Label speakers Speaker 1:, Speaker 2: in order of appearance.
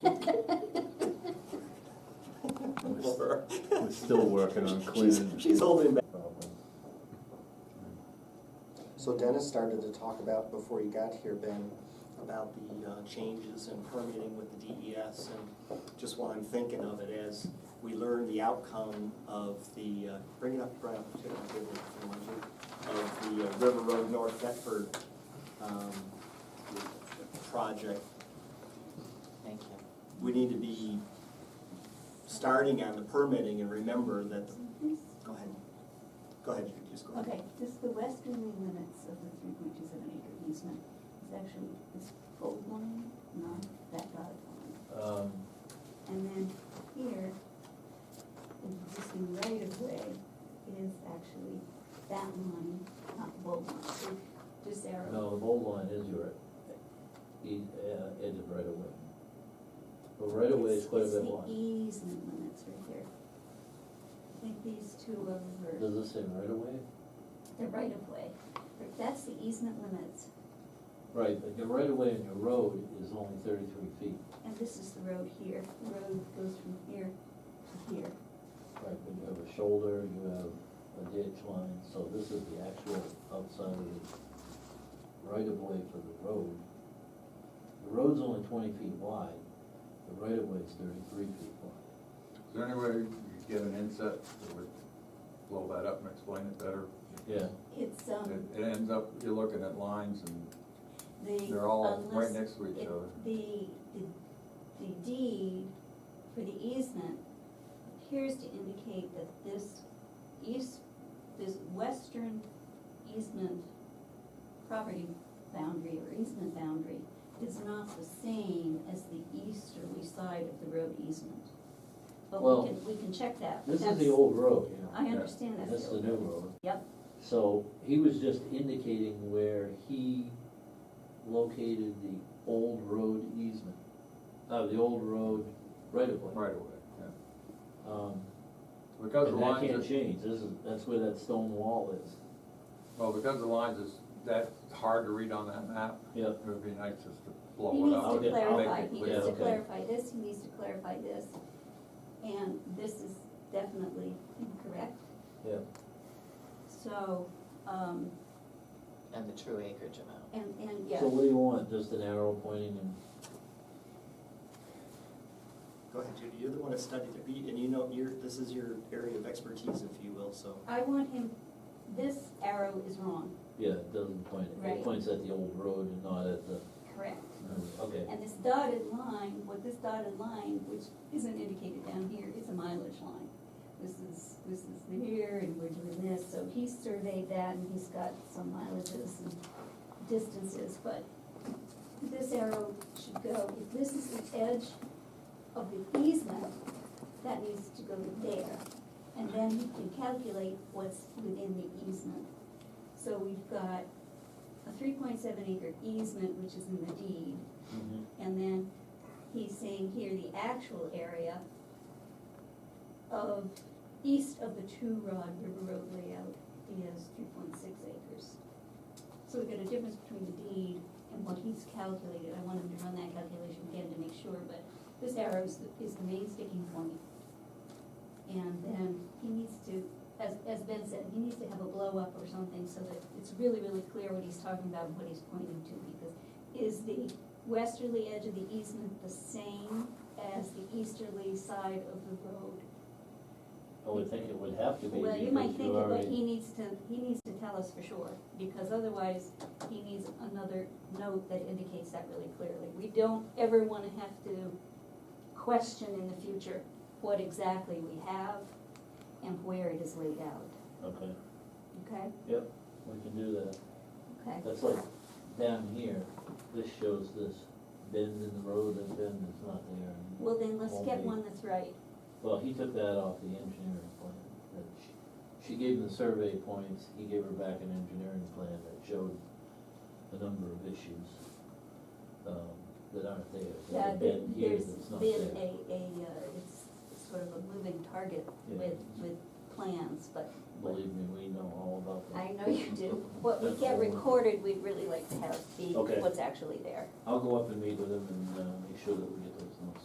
Speaker 1: over.
Speaker 2: We're still working on
Speaker 1: She's,
Speaker 2: Quinn.
Speaker 1: she's holding back.
Speaker 3: So Dennis started to talk about, before you got here, Ben,
Speaker 1: About the uh, changes in permitting with the DES and just while I'm thinking of it, as we learn the outcome of the, uh, bring it up, right up to the table if you want to, of the uh, River Road North Thetford, um, project. Thank you. We need to be starting on the permitting and remember that, go ahead, go ahead, you just go ahead.
Speaker 4: Okay, this, the westerly limits of the three point two seven acre easement is actually this gold line, not that dotted line.
Speaker 5: Um,
Speaker 4: And then here, the existing right of way is actually that line, not the bold line, so this arrow.
Speaker 5: no, the bold line is your, e- uh, edge of right away. But right away is
Speaker 4: It's-
Speaker 5: quite a
Speaker 4: it's
Speaker 5: bit
Speaker 4: the
Speaker 5: long.
Speaker 4: Easement limits right there. I think these two
Speaker 5: Does
Speaker 4: over,
Speaker 5: this say right away?
Speaker 4: the right of way, that's the easement limits,
Speaker 5: Right, but your right away and your road is only thirty-three feet.
Speaker 4: and this is the road here, the road goes from here to here.
Speaker 5: Right, but you have a shoulder, you have a ditch line, so this is the actual outside of the right of way for the road. The road's only twenty feet wide, the right of way is thirty-three feet wide.
Speaker 6: Is there any way you could get an inset that would blow that up and explain it better?
Speaker 5: Yeah,
Speaker 4: It's, um,
Speaker 6: It, it ends up, you're looking at lines and
Speaker 4: the.
Speaker 6: they're all right
Speaker 4: unless
Speaker 6: next to each
Speaker 4: it-
Speaker 6: other.
Speaker 4: The, the, the deed for the easement appears to indicate that this east, this western easement property boundary or easement boundary is not the same as the easterly side of the road easement. But
Speaker 5: Well,
Speaker 4: we can, we can check that. but
Speaker 5: this is the
Speaker 4: that's-
Speaker 5: old road, you know.
Speaker 4: I understand that's.
Speaker 5: This is
Speaker 4: the
Speaker 5: the
Speaker 4: old
Speaker 5: new
Speaker 4: road.
Speaker 5: road.
Speaker 4: Yep,
Speaker 5: So he was just indicating where he located the old road easement, uh, the old road right of way.
Speaker 6: Right away, yeah.
Speaker 5: Um,
Speaker 6: Because the
Speaker 5: And that can't
Speaker 6: lines are,
Speaker 5: change, this is, that's where that stone wall is.
Speaker 6: well, because the lines is, that's hard to read on that map.
Speaker 5: Yeah.
Speaker 6: It would be nice just to
Speaker 4: He
Speaker 6: blow it
Speaker 4: needs
Speaker 6: up.
Speaker 4: to
Speaker 5: I'll
Speaker 6: and
Speaker 5: get-
Speaker 6: make
Speaker 4: clarify,
Speaker 6: it
Speaker 4: he
Speaker 6: clear.
Speaker 4: needs to
Speaker 5: okay.
Speaker 4: clarify this, he needs to clarify this, and this is definitely incorrect,
Speaker 5: Yeah.
Speaker 4: so, um,
Speaker 7: And the true acreage amount.
Speaker 4: and, and, yeah.
Speaker 5: So what do you want, just an arrow pointing and,
Speaker 1: Go ahead, Judy, you're the one that studied it, you- and you know, you're, this is your area of expertise, if you will, so.
Speaker 4: I want him, this arrow is wrong,
Speaker 5: yeah, it doesn't point,
Speaker 4: Right.
Speaker 5: it points at the old road and not at the,
Speaker 4: correct,
Speaker 5: okay.
Speaker 4: and this dotted line, what this dotted line, which isn't indicated down here, is a mileage line. This is, this is here, and we're doing this, so he surveyed that, and he's got some mileages and distances, but this arrow should go, if this is the edge of the easement, that needs to go to there. And then you can calculate what's within the easement. So we've got a three point seven acre easement, which is in the deed,
Speaker 5: Mhm.
Speaker 4: and then he's saying here the actual area of, east of the two rod river road layout is three point six acres. So we've got a difference between the deed and what he's calculated, I want him to run that calculation again to make sure, but this arrow is, the- is the main sticking point. And then he needs to, as, as Ben said, he needs to have a blow up or something so that it's really, really clear what he's talking about and what he's pointing to, because is the westerly edge of the easement the same as the easterly side of the road?
Speaker 5: I would think it would have to be,
Speaker 4: Well,
Speaker 5: because
Speaker 4: you might think
Speaker 5: you
Speaker 4: it, but
Speaker 5: already,
Speaker 4: he needs to, he needs to tell us for sure, because otherwise, he needs another note that indicates that really clearly. We don't ever wanna have to question in the future what exactly we have and where it is laid out,
Speaker 5: okay,
Speaker 4: okay?
Speaker 5: yep, we can do that.
Speaker 4: Okay,
Speaker 5: That's like down here, this shows this bend in the road, this bend is not there. and-
Speaker 4: well then, let's
Speaker 5: Won't
Speaker 4: get
Speaker 5: be.
Speaker 4: one that's right.
Speaker 5: Well, he took that off the engineering plan, that she, she gave him the survey points, he gave her back an engineering plan that showed a number of issues, um, that aren't there. There's a
Speaker 4: Yeah, Uh, there-
Speaker 5: bend here
Speaker 4: there's
Speaker 5: that's not
Speaker 4: been
Speaker 5: there.
Speaker 4: a, a, uh, it's it's sort of a moving target
Speaker 5: Yeah.
Speaker 4: with, with plans, but
Speaker 5: Believe me, we know all about that.
Speaker 4: I know you do. What we
Speaker 5: That's
Speaker 4: get
Speaker 5: all.
Speaker 4: recorded, we'd really like to have be
Speaker 5: Okay.
Speaker 4: what's actually there.
Speaker 5: I'll go up and meet with him and, uh, make sure that we get those notes.